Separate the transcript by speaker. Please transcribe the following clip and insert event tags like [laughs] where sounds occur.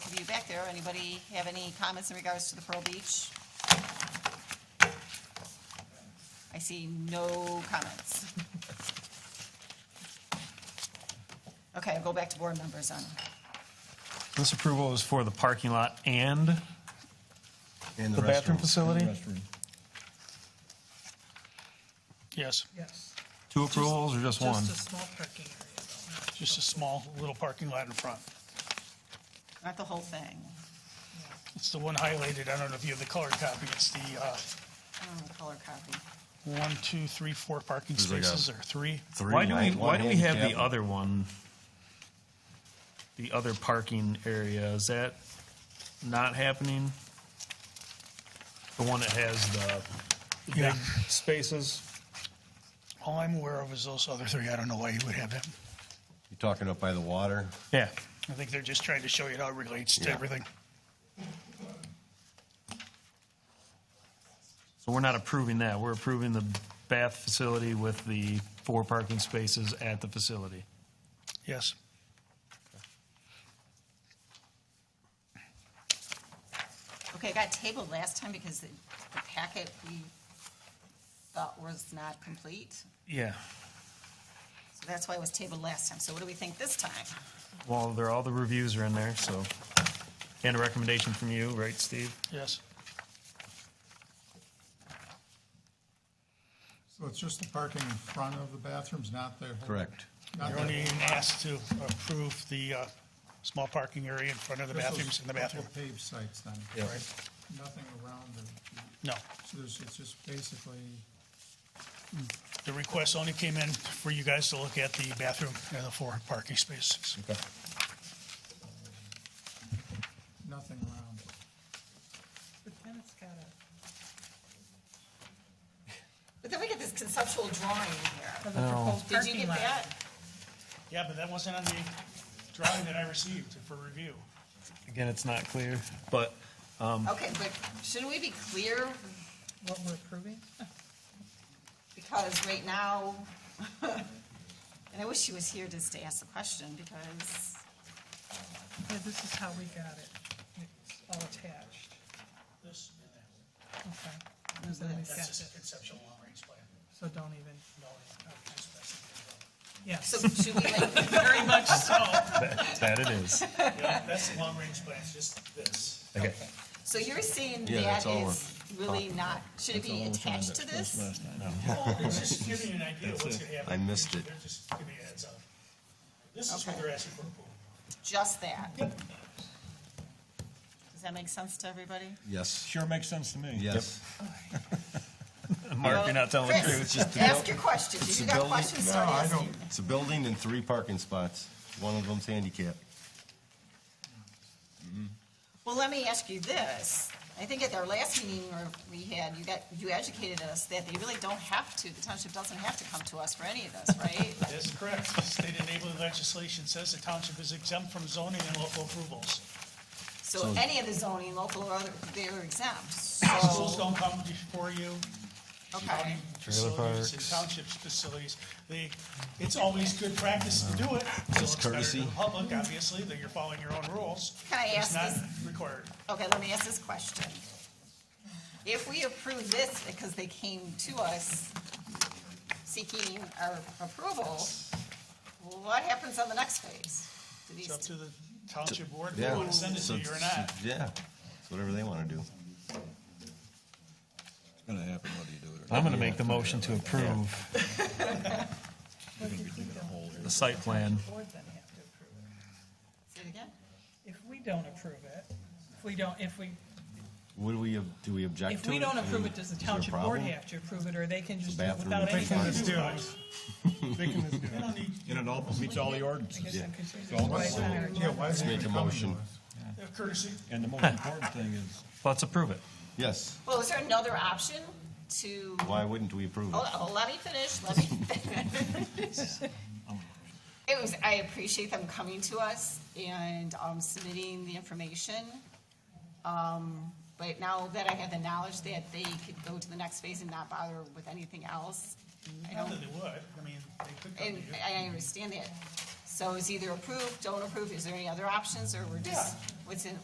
Speaker 1: there. Anybody have any comments in regards to the Pearl Beach? I see no comments. Okay, I'll go back to board members on,
Speaker 2: This approval is for the parking lot and
Speaker 3: And
Speaker 2: The bathroom
Speaker 3: restroom.
Speaker 2: facility?
Speaker 3: And restroom.
Speaker 4: Yes,
Speaker 5: Yes.
Speaker 2: two approvals or just one?
Speaker 5: Just a small parking area though. not-
Speaker 4: just a small little parking lot in front.
Speaker 1: not the whole thing.
Speaker 4: It's the one highlighted, I don't know if you have the colored copy, it's the uh,
Speaker 1: I don't have a color copy.
Speaker 4: one, two, three, four parking
Speaker 6: There's like a-
Speaker 4: spaces, or three.
Speaker 6: Three
Speaker 2: Why do we,
Speaker 3: light,
Speaker 2: why
Speaker 3: one
Speaker 2: do we have the
Speaker 3: handicap.
Speaker 2: other one? The other parking area, is that not happening? The one that has the big
Speaker 4: Yeah.
Speaker 2: spaces?
Speaker 4: All I'm aware of is those other three, I don't know why you would have them.
Speaker 3: You're talking up by the water?
Speaker 2: Yeah.
Speaker 4: I think they're just trying to show you how it relates to
Speaker 3: Yeah.
Speaker 4: everything.
Speaker 2: So we're not approving that. We're approving the bath facility with the four parking spaces at the facility.
Speaker 4: Yes.
Speaker 1: Okay, it got tabled last time because the the packet we thought was not complete.
Speaker 2: Yeah.
Speaker 1: So that's why it was tabled last time. So what do we think this time?
Speaker 2: Well, there, all the reviews are in there, so, and a recommendation from you, right, Steve?
Speaker 4: Yes.
Speaker 7: So it's just the parking in front of the bathrooms, not the? whole-
Speaker 3: Correct.
Speaker 7: not
Speaker 4: You're
Speaker 7: the-
Speaker 4: only being asked to approve the uh, small parking area in front of the
Speaker 7: just those
Speaker 4: bathrooms, in the
Speaker 7: couple
Speaker 4: bathroom.
Speaker 7: Paved sites then?
Speaker 3: Yeah.
Speaker 7: Nothing around the,
Speaker 4: No.
Speaker 7: so there's, it's just basically,
Speaker 4: The request only came in for you guys to look at the bathroom and the four parking spaces.
Speaker 7: nothing around it.
Speaker 5: But then it's got a.
Speaker 1: But then we get this conceptual drawing in
Speaker 5: of the proposed
Speaker 1: here. Did you
Speaker 5: parking
Speaker 1: get
Speaker 5: lot.
Speaker 1: that?
Speaker 4: Yeah, but that wasn't on the drawing that I received for review.
Speaker 2: Again, it's not clear, but
Speaker 1: Okay, but shouldn't we be clear?
Speaker 5: What we're approving?
Speaker 1: Because right now, [laughs] and I wish she was here just to ask the question because,
Speaker 5: Yeah, this is how we got it. It's all attached.
Speaker 4: This, and that.
Speaker 5: Okay. And then we've got
Speaker 4: that's just a
Speaker 5: it.
Speaker 4: conceptual long-range plan.
Speaker 5: So don't even,
Speaker 4: No, it's not a specific
Speaker 1: so
Speaker 5: yes,
Speaker 1: should we like, [laughs]
Speaker 5: very much so.
Speaker 2: that it is.
Speaker 4: plan. Yeah, Oh, that's the long-range plan, it's just this.
Speaker 2: Okay.
Speaker 1: so you're saying
Speaker 3: Yeah,
Speaker 1: that
Speaker 3: that's all
Speaker 1: is really not, should it be attached to this?
Speaker 4: Well, it's just giving you an idea of what's gonna happen.
Speaker 3: I missed it.
Speaker 4: They're just giving you a heads up. This is what
Speaker 1: Okay.
Speaker 4: they're asking for approval.
Speaker 1: Just that? Does that make sense to everybody?
Speaker 3: Yes,
Speaker 2: Sure makes sense to me.
Speaker 3: yes.
Speaker 2: Mark, you're not telling the
Speaker 1: Chris,
Speaker 2: truth.
Speaker 1: Ask your questions. If you got
Speaker 3: building-
Speaker 1: questions,
Speaker 7: No,
Speaker 1: start
Speaker 7: I
Speaker 1: asking.
Speaker 7: don't.
Speaker 3: It's a building and three parking spots. One of them's handicapped.
Speaker 1: Well, let me ask you this. I think at our last meeting where we had, you got, you educated us that they really don't have to, the township doesn't have to come to us for any of this, right?
Speaker 4: That's correct. State enabling legislation says the township is exempt from zoning and local approvals.
Speaker 1: So any of the zoning, local or other, they're exempt,
Speaker 4: Schools
Speaker 1: so,
Speaker 4: don't come before you,
Speaker 1: okay.
Speaker 4: facilities and townships facilities. They, it's always good practice to do it. So it's better to
Speaker 3: courtesy.
Speaker 4: the public, obviously, that you're following your own rules.
Speaker 1: Can I ask
Speaker 4: It's not required.
Speaker 1: Okay, let me ask this question. If we approve this because they came to us seeking our approval, what happens on the next phase? Do
Speaker 4: It's up
Speaker 1: these,
Speaker 4: to the township board if they
Speaker 3: Yeah.
Speaker 4: want to send it
Speaker 3: So
Speaker 4: to you or not.
Speaker 3: it's- Yeah, it's whatever they want to do.
Speaker 8: It's gonna happen whether you do it or not.
Speaker 2: I'm gonna make the motion to approve
Speaker 5: What do you think don't
Speaker 2: the site plan.
Speaker 5: Board then have to approve it.
Speaker 1: say it again?
Speaker 5: If we don't approve it, if we don't, if we,
Speaker 3: Would we, ob- do we object to it?
Speaker 5: if we don't
Speaker 3: I
Speaker 5: approve
Speaker 3: mean,
Speaker 5: it, does
Speaker 3: is
Speaker 5: the
Speaker 3: there a
Speaker 5: township board
Speaker 3: problem?
Speaker 5: have to approve it, or they can just, do it
Speaker 3: bathroom
Speaker 5: without
Speaker 3: with
Speaker 5: anything to do with it?
Speaker 4: They don't need,
Speaker 8: And it all meets all the
Speaker 5: I guess
Speaker 8: ordinances.
Speaker 5: I'm confused. Why is that our-
Speaker 7: Yeah, why is it
Speaker 3: Make
Speaker 7: even
Speaker 3: a
Speaker 7: coming
Speaker 3: motion.
Speaker 7: to us?
Speaker 4: they're courtesy.
Speaker 8: And the most important thing is,
Speaker 2: Let's approve it.
Speaker 3: Yes,
Speaker 1: Well, is there another option to,
Speaker 3: why wouldn't we approve it?
Speaker 1: hold on, let me finish, let me finish. It was, I appreciate them coming to us and um, submitting the information. Um, But now that I have the knowledge that they could go to the next phase and not bother with anything else, I
Speaker 4: Not
Speaker 1: don't,
Speaker 4: that they would, I mean, they could come
Speaker 1: and
Speaker 4: to you.
Speaker 1: I understand that. So it's either approve, don't approve, is there any other options, or we're just, what's in,